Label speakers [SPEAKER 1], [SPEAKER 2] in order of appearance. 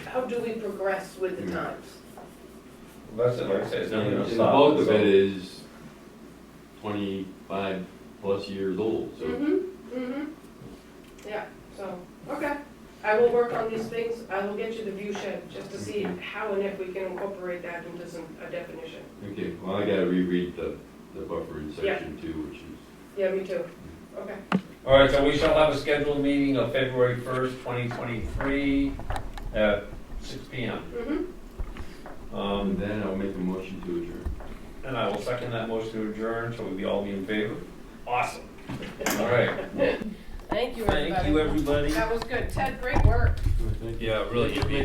[SPEAKER 1] how do we progress with the times?
[SPEAKER 2] That's it, like I said, it's never
[SPEAKER 3] And
[SPEAKER 2] gonna
[SPEAKER 3] the
[SPEAKER 2] stop.
[SPEAKER 3] bulk of
[SPEAKER 2] so-
[SPEAKER 3] it is twenty-five plus years old, so
[SPEAKER 1] Mm-hmm, mm-hmm. Yeah, so, okay. I will work on these things. I will get you the view shed just to see
[SPEAKER 2] Mm-hmm.
[SPEAKER 1] how and if we can incorporate that into some, a definition.
[SPEAKER 3] okay, well, I gotta reread the, the buffering
[SPEAKER 1] Yeah.
[SPEAKER 3] section too, which is.
[SPEAKER 1] Yeah, me too. Okay.
[SPEAKER 2] All right, so we shall have a scheduled meeting of February first, twenty twenty-three, at six P M.
[SPEAKER 1] Mm-hmm.
[SPEAKER 3] And
[SPEAKER 2] Um,
[SPEAKER 3] then I'll make a motion to adjourn.
[SPEAKER 2] and I will second that motion to adjourn, so we all be in favor? Awesome. All right.
[SPEAKER 1] Thank you,
[SPEAKER 2] Thank you, everybody.
[SPEAKER 1] That was good. Ted, great work.
[SPEAKER 3] Thank you.
[SPEAKER 2] Yeah, really, you